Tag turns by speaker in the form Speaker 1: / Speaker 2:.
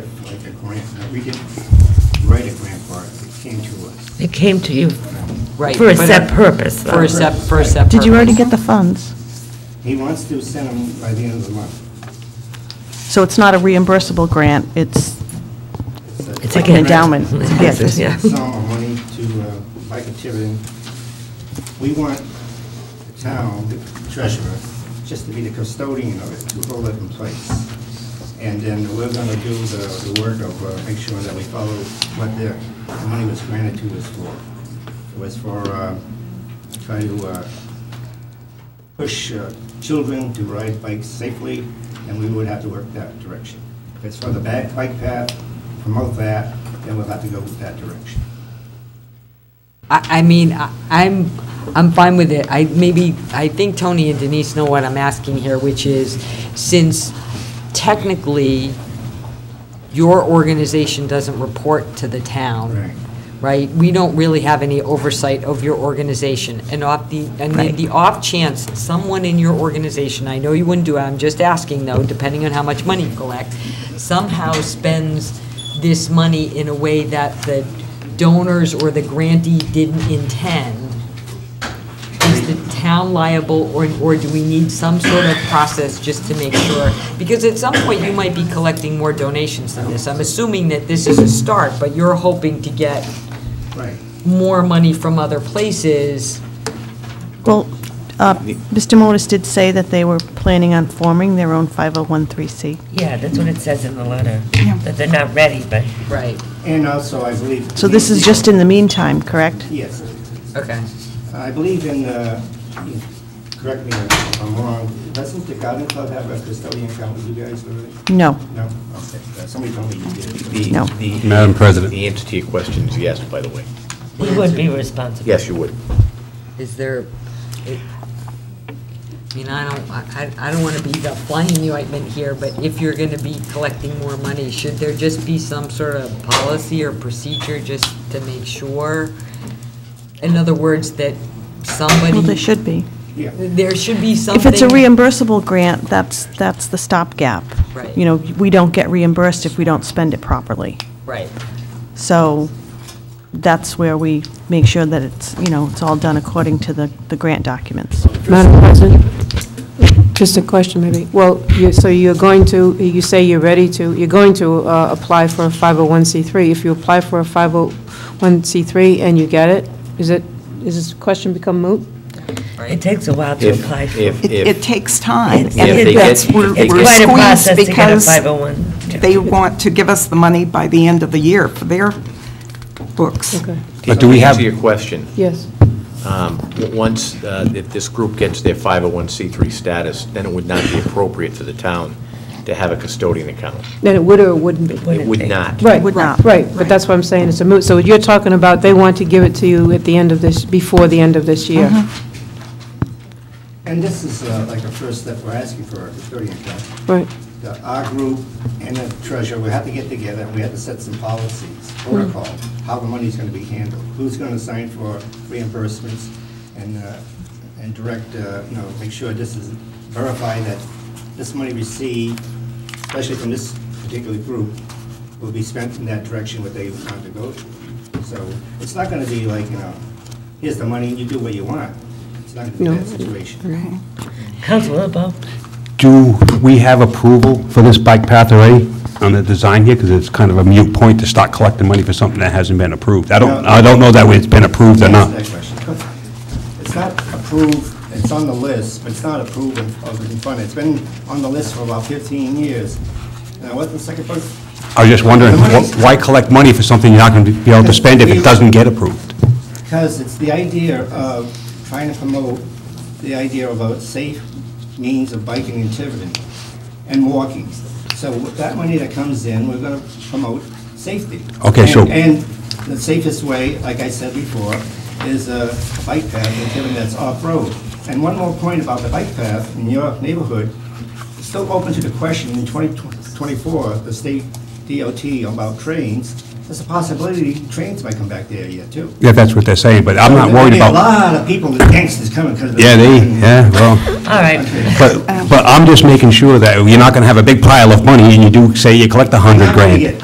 Speaker 1: grant, uh, we didn't write a grant for it, it came to us.
Speaker 2: It came to you
Speaker 3: Right.
Speaker 2: for a
Speaker 3: but
Speaker 2: set purpose,
Speaker 3: For
Speaker 2: though.
Speaker 3: a set, for a set
Speaker 4: Did you already
Speaker 3: purpose.
Speaker 4: get the funds?
Speaker 1: He wants to send them by the end of the month.
Speaker 4: So it's not a reimbursable grant, it's,
Speaker 1: a-
Speaker 2: It's
Speaker 4: like
Speaker 2: a gift.
Speaker 4: an endowment. It's a gift.
Speaker 2: Yeah.
Speaker 1: Some of money to, uh, like a Tiverton. We want the town, the treasurer, just to be the custodian of it, to hold it in place. And then we're gonna do the, the work of, uh, make sure that we follow what the the money was granted to us for. It was for, uh, try to, uh, push uh, children to ride bikes safely, and we would have to work that direction. If it's for the ba- bike path, promote that, then we'll have to go with that direction.
Speaker 3: I, I mean, I- I'm, I'm fine with it. I maybe, I think Tony and Denise know what I'm asking here, which is, since technically your organization doesn't report to the town.
Speaker 1: Right.
Speaker 3: right? We don't really have any oversight of your organization. And off the, and the- the off chance, someone in your organization, I know you wouldn't do it, I'm just asking though, depending on how much money you collect, somehow spends this money in a way that the donors or the grantee didn't intend, is the town liable, or, or do we need some sort of process just to make sure? Because at some point, you might be collecting more donations than this. I'm assuming that this is a start, but you're hoping to get
Speaker 1: Right.
Speaker 3: more money from other places.
Speaker 4: well, uh, Mr. Modis did say that they were planning on forming their own 501c.
Speaker 2: Yeah, that's what it says in the letter, that they're not ready, but
Speaker 3: Right.
Speaker 1: And also, I believe.
Speaker 4: So this is just in the meantime, correct?
Speaker 1: Yes.
Speaker 3: Okay.
Speaker 1: I believe in, uh, correct me if I'm wrong, doesn't the garden club have a custodian account with you guys already?
Speaker 4: No.
Speaker 1: No? Okay. Somebody told me you did.
Speaker 5: The-
Speaker 4: No.
Speaker 5: the-
Speaker 6: Madam President.
Speaker 5: The entity in question is yes, by the way.
Speaker 2: we would be responsible.
Speaker 5: Yes, you would.
Speaker 3: Is there, it- I mean, I don't, I, I I don't want to be the flying ointment here, but if you're going to be collecting more money, should there just be some sort of policy or procedure just to make sure? In other words, that somebody.
Speaker 4: Well, they should be.
Speaker 1: Yeah.
Speaker 3: There should be something.
Speaker 4: If it's a reimbursable grant, that's, that's the stopgap.
Speaker 3: Right.
Speaker 4: You know, we don't get reimbursed if we don't spend it properly.
Speaker 3: Right,
Speaker 4: So that's where we make sure that it's, you know, it's all done according to the, the grant documents.
Speaker 7: Madam President, just a question maybe. Well, you- so you're going to, you say you're ready to, you're going to uh, apply for a 501c3. If you apply for a 501c3 and you get it, is it, is this question become moot?
Speaker 2: It takes a while to
Speaker 5: If-
Speaker 2: apply for.
Speaker 5: If,
Speaker 8: It, it
Speaker 5: if,
Speaker 8: takes time,
Speaker 2: It's-
Speaker 5: if
Speaker 8: and
Speaker 5: they
Speaker 8: that's,
Speaker 5: get-
Speaker 8: we're
Speaker 5: if they get-
Speaker 8: we're
Speaker 2: Quite a process
Speaker 8: squeezed
Speaker 2: to get a
Speaker 8: because
Speaker 2: 501.
Speaker 8: they want to give us the money by the end of the year for their books.
Speaker 7: Okay,
Speaker 6: But do we have-
Speaker 5: To answer your question,
Speaker 7: yes.
Speaker 5: um, w- once, uh, if this group gets their 501c3 status, then it would not be appropriate for the town to have a custodian account.
Speaker 7: Then it would or it wouldn't be?
Speaker 5: It would not.
Speaker 7: Right,
Speaker 4: Would not.
Speaker 7: right, but that's what I'm saying, it's a moot. So you're talking about they want to give it to you at the end of this, before the end of this year?
Speaker 1: And this is uh, like a first step, we're asking for a custodian account.
Speaker 7: Right,
Speaker 1: the- our group and the treasurer, we have to get together, and we have to set some policies, protocol, how the money's gonna be handled, who's gonna sign for reimbursements, and, uh, and direct, uh, you know, make sure this is, verify that this money received, especially from this particular group, will be spent in that direction what they want to go to. So, it's not gonna be like, you know, here's the money, you do what you want. It's not gonna be that situation.
Speaker 2: Councilor LeBeau?
Speaker 6: Do we have approval for this bike path already on the design here? Because it's kind of a mute point to start collecting money for something that hasn't been approved. I don't,
Speaker 1: No.
Speaker 6: I don't know that it's been approved or
Speaker 1: Ask
Speaker 6: not.
Speaker 1: that question. It's not approved, it's on the list, but it's not approved and- of in front. It's been on the list for about 15 years. Now, what's the second part?
Speaker 6: I was just wondering,
Speaker 1: The money's-
Speaker 6: wh- why collect money for something you're not going to be able to spend if it doesn't get approved?
Speaker 1: Because it's the idea of trying to promote the idea of a safe means of biking in Tiverton and walking. So with that money that comes in, we're going to promote safety.
Speaker 6: Okay, so-
Speaker 1: And- And the safest way, like I said before, is a bike path in Tiverton that's off-road. And one more point about the bike path in your neighborhood, it's still open to the question in 2024, the state DOT about trains, there's a possibility trains might come back there yet, too.
Speaker 6: Yeah, that's what they're saying, but I'm not
Speaker 1: There'll
Speaker 6: worried
Speaker 1: be
Speaker 6: about...
Speaker 1: A lot of people, the gangsters coming because of the.
Speaker 6: Yeah, they, yeah, well,
Speaker 2: All right.
Speaker 6: but, but I'm just making sure that you're not going to have a big pile of money and you do, say you collect a
Speaker 1: How
Speaker 6: 100
Speaker 1: do we
Speaker 6: grand.
Speaker 1: get